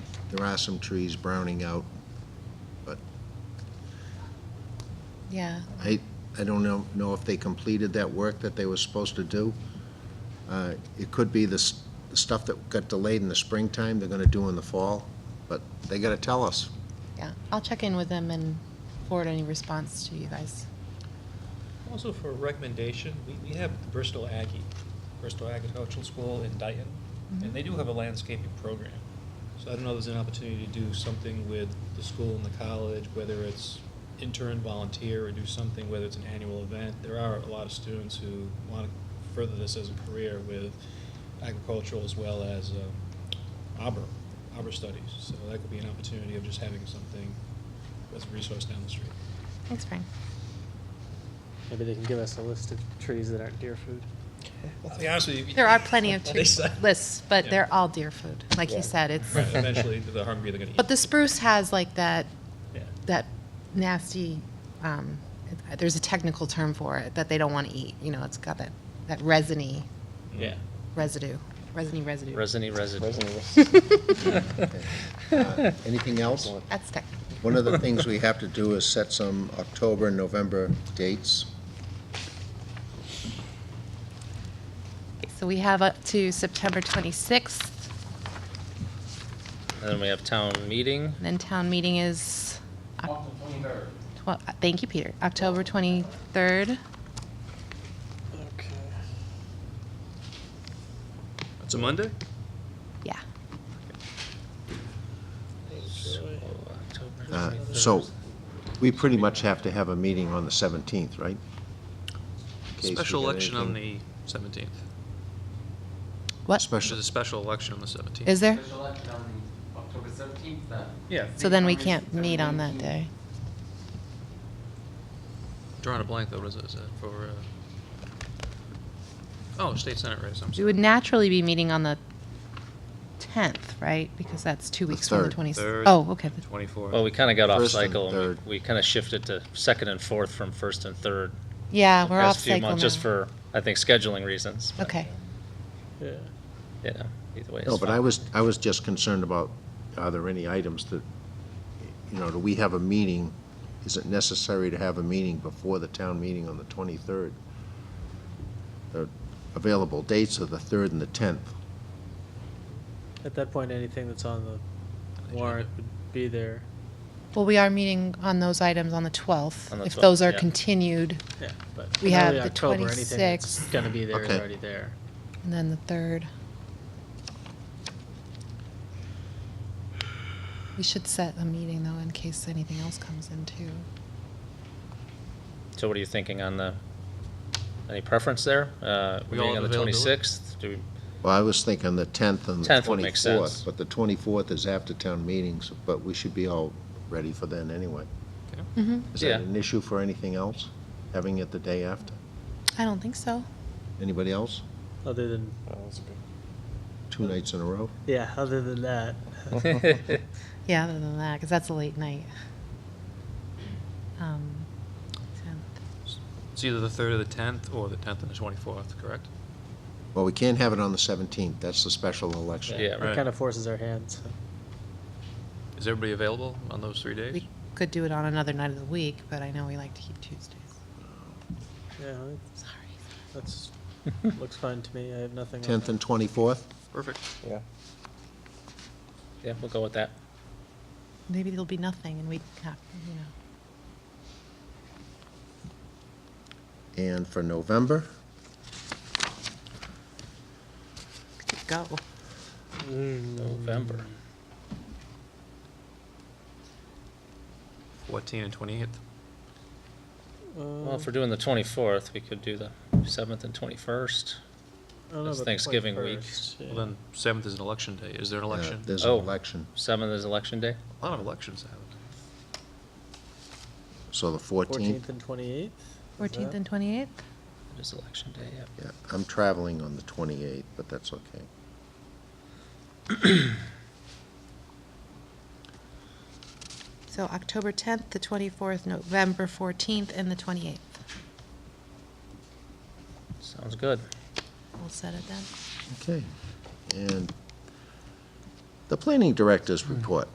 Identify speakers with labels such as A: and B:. A: There are some trees browning out, but
B: Yeah,
A: I, I don't know, know if they completed that work that they were supposed to do. Uh, It could be the s- the stuff that got delayed in the springtime, they're gonna do in the fall, but they gotta tell us.
B: yeah. I'll check in with them and forward any response to you guys.
C: Also for a recommendation, we, we have the Bristol Aggie, Bristol Agricultural School in Dayton,
B: Mm-hmm.
C: and they do have a landscaping program. So I don't know if there's an opportunity to do something with the school and the college, whether it's intern, volunteer, or do something, whether it's an annual event. There are a lot of students who want to further this as a career with agricultural as well as uh, arbor, arbor studies. So that could be an opportunity of just having something as a resource down the street.
B: Thanks, Brian.
D: Maybe they can give us a list of trees that aren't deer food.
C: I'll be honest with you.
B: There are plenty of
C: They
B: tree
C: say-
B: lists, but
C: Yeah.
B: they're all deer food, like he
D: Yeah.
B: said. It's
C: Right, eventually, the hungry, they're gonna eat.
B: but the spruce has like that
C: Yeah.
B: that nasty. Um, it- there's a technical term for it that they don't want to eat. You know, it's got that that resiny
E: Yeah,
B: residue, resiny residue.
E: resiny residue.
A: Uh, Anything else?
B: That's technical.
A: One of the things we have to do is set some October and November dates.
B: So we have up to September 26th,
E: And then we have town meeting.
B: and then town meeting is. October 23rd. Thank you, Peter. October 23rd.
D: Okay.
E: It's a Monday?
B: Yeah.
A: Uh, So, we pretty much have to have a meeting on the 17th, right? In case we
F: Special
A: get
F: election on
A: anything-
F: the 17th.
B: What?
A: Special,
F: There's a special election on the 17th.
B: Is there?
G: Special election on the October uh, 17th then?
E: Yeah,
B: So then we can't meet on that day.
F: Drawing a blank, though, what is it, is it for, uh, oh, state senate race, I'm
B: We
F: sorry.
B: would naturally be meeting on the 10th, right? Because that's two weeks from the
A: third.
B: 26th.
F: Third.
B: Oh, okay.
E: well,
F: Twenty-four.
E: we kinda got off
A: First and
E: cycle, and
A: third.
E: we- we kinda shifted to second and fourth from first and third.
B: Yeah,
E: the
B: we're
E: past
B: off
E: few
B: cycle now.
E: months, Just for, I think, scheduling reasons. but,
B: Okay.
D: Yeah.
E: You know, either way it's
A: no, but
E: fine.
A: I was, I was just concerned about, are there any items that, you know, do we have a meeting? Is it necessary to have a meeting before the town meeting on the 23rd? The available dates are the 3rd and the 10th.
D: At that point, anything that's on the warrant would be there.
B: Well, we are meeting on those items on the 12th.
E: On the
B: If
E: 12th,
B: those are
E: yeah.
B: continued,
D: Yeah, but
B: We
D: in
B: have
D: early
B: the
D: October, anything that's
B: 26th.
D: Gonna be there is
A: Okay.
D: already there.
B: and then the 3rd. We should set a meeting, though, in case anything else comes in, too.
E: So what are you thinking on the, any preference there? Uh,
F: We
E: we're
F: all
E: meeting on
F: have
E: the
F: availability?
E: twenty-sixth? Do we,
A: Well, I was thinking the 10th and the 24th.
E: 10th would make sense.
A: But the 24th is after town meetings, but we should be all ready for then anyway.
F: Okay.
B: Mm-hmm.
A: Is that
E: Yeah.
A: an issue for anything else, having it the day after?
B: I don't think so.
A: Anybody else?
D: Other than,
A: Two nights in a row?
D: yeah, other than that,
B: Yeah, other than that, because that's a late night. Um, 10th.
F: It's either the third or the 10th, or the 10th and the 24th, correct?
A: Well, we can't have it on the 17th, that's the special election.
E: Yeah,
D: it
F: right.
D: kinda forces our hands. so.
F: Is everybody available on those three days?
B: We could do it on another night of the week, but I know we like to keep Tuesdays.
D: Yeah,
B: Sorry.
D: that's, looks fine to me. I have nothing on
A: 10th
D: that.
A: and 24th?
F: Perfect.
E: yeah, we'll go with that.
B: Maybe there'll be nothing and we can have, you know.
A: And for November?
B: could Go.
D: Mm.
E: November.
F: 14 and 28th.
E: Well,
D: Uh,
E: if we're doing the twenty-fourth, we could do the seventh and twenty-first.
D: I don't know
E: it's
D: about the
E: Thanksgiving week.
D: 21st,
F: Well,
D: yeah.
F: then, 7th is an election day. Is there an
A: uh,
F: election?
A: There's an
E: Oh.
A: election,
E: Seventh is election day.
F: A lot of elections happen.
A: so the 14th?
D: Fourteenth and twenty-eighth?
B: 14th and 28th?
E: It is election day, yeah.
A: Yeah, I'm traveling on the 28th, but that's okay.
B: So October 10th, the 24th, November 14th, and the 28th.
E: Sounds good.
B: We'll set it then.
A: Okay, and The planning director's report.